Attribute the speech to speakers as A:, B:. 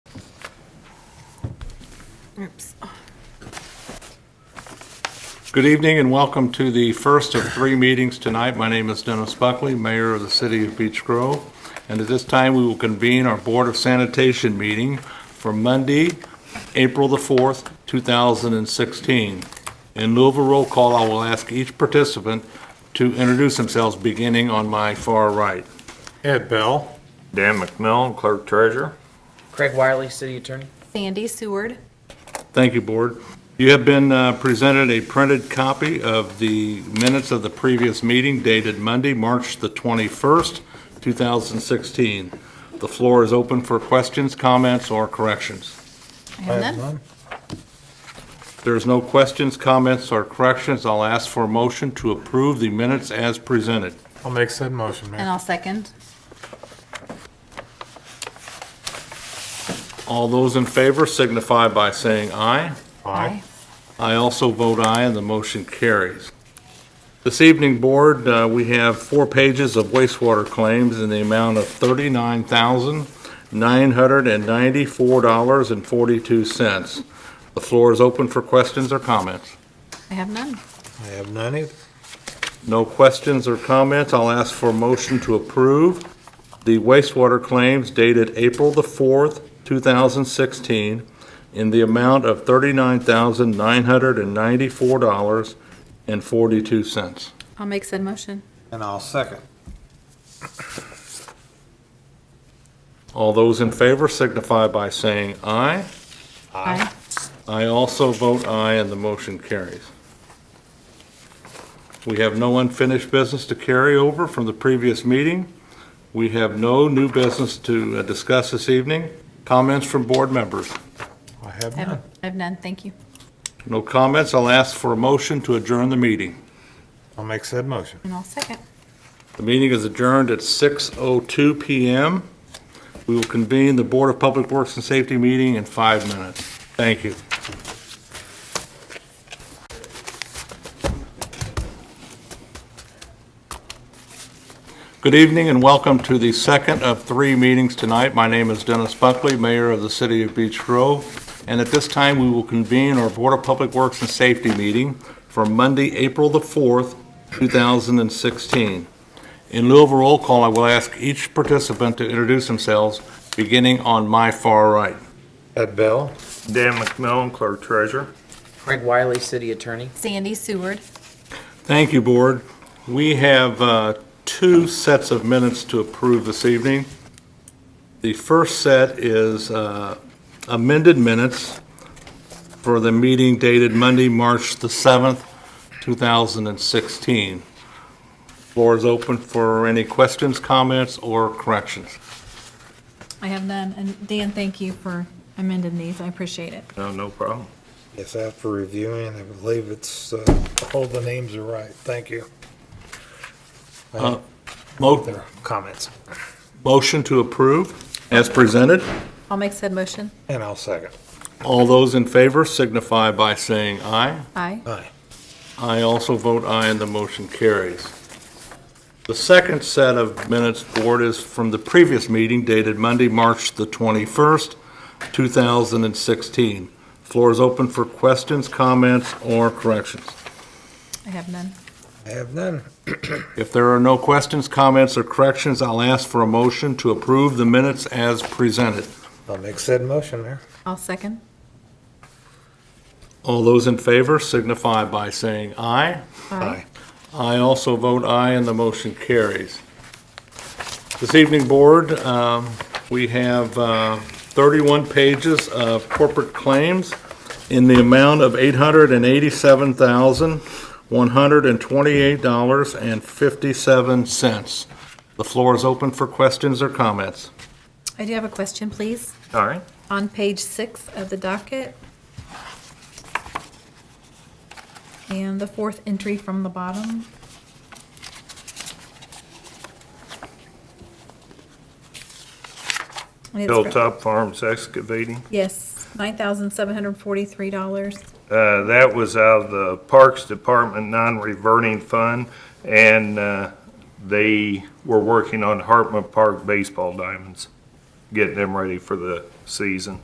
A: Oops.
B: Good evening and welcome to the first of three meetings tonight. My name is Dennis Buckley, Mayor of the City of Beech Grove. And at this time, we will convene our Board of Sanitation meeting for Monday, April the 4th, 2016. In lieu of a roll call, I will ask each participant to introduce themselves, beginning on my far right.
C: Ed Bell.
D: Dan McMillan, Clerk Treasurer.
E: Craig Wiley, City Attorney.
A: Sandy Seward.
B: Thank you, Board. You have been uh, presented a printed copy of the minutes of the previous meeting dated Monday, March the 21st, 2016. The floor is open for questions, comments, or corrections.
A: I have none.
B: If there's no questions, comments, or corrections, I'll ask for a motion to approve the minutes as presented.
C: I'll make said motion,
A: And
C: Mayor.
A: I'll second.
B: All those in favor signify by saying aye.
C: Aye.
B: I also vote aye, and the motion carries. This evening, Board, uh, we have four pages of wastewater claims in the amount of $39,994.42. The floor is open for questions or comments.
A: I have none.
C: I have none either.
B: No questions or comments, I'll ask for a motion to approve the wastewater claims dated April the 4th, 2016, in the amount of $39,994.42.
A: I'll make said motion.
C: And I'll second.
B: All those in favor signify by saying aye.
A: Aye.
B: I also vote aye, and the motion carries. We have no unfinished business to carry over from the previous meeting. We have no new business to uh, discuss this evening. Comments from board members?
C: I have
A: I have,
C: none.
A: I have none. Thank you.
B: No comments, I'll ask for a motion to adjourn the meeting.
C: I'll make said motion.
A: And I'll second.
B: The meeting is adjourned at 6:02 PM. We will convene the Board of Public Works and Safety meeting in five minutes. Thank you. Good evening and welcome to the second of three meetings tonight. My name is Dennis Buckley, Mayor of the City of Beech Grove, and at this time, we will convene our Board of Public Works and Safety meeting for Monday, April the 4th, 2016. In lieu of a roll call, I will ask each participant to introduce themselves, beginning on my far right.
C: Ed Bell.
D: Dan McMillan, Clerk Treasurer.
E: Craig Wiley, City Attorney.
A: Sandy Seward.
B: Thank you, Board. We have uh, two sets of minutes to approve this evening. The first set is uh, amended minutes for the meeting dated Monday, March the 7th, 2016. Floor is open for any questions, comments, or corrections.
A: I have none. And Dan, thank you for amending these. I appreciate it.
D: No, no problem.
C: Yes, after reviewing, I believe it's, uh, all the names are right. Thank you.
B: Mo-
C: Their Uh, comments.
B: Motion to approve as presented.
A: I'll make said motion.
C: And I'll second.
B: All those in favor signify by saying aye.
A: Aye.
C: Aye.
B: I also vote aye, and the motion carries. The second set of minutes, Board, is from the previous meeting dated Monday, March the 21st, 2016. Floor is open for questions, comments, or corrections.
A: I have none.
C: I have none.
B: If there are no questions, comments, or corrections, I'll ask for a motion to approve the minutes as presented.
C: I'll make said motion, Mayor.
A: I'll second.
B: All those in favor signify by saying aye.
C: Aye.
B: I also vote aye, and the motion carries. This evening, Board, um, we have uh, 31 pages of corporate claims in the amount of $887,128.57. The floor is open for questions or comments.
A: I do have a question, please.
D: All right.
A: On page six of the docket. And the fourth entry from the bottom. And it's for-
D: Hilltop Farms Excavating.
A: Yes, nine thousand seven hundred forty-three dollars.
D: Uh, That was out of the Parks Department Non-Reverting Fund, and uh, they were working on Hartman Park baseball diamonds, getting them ready for the season.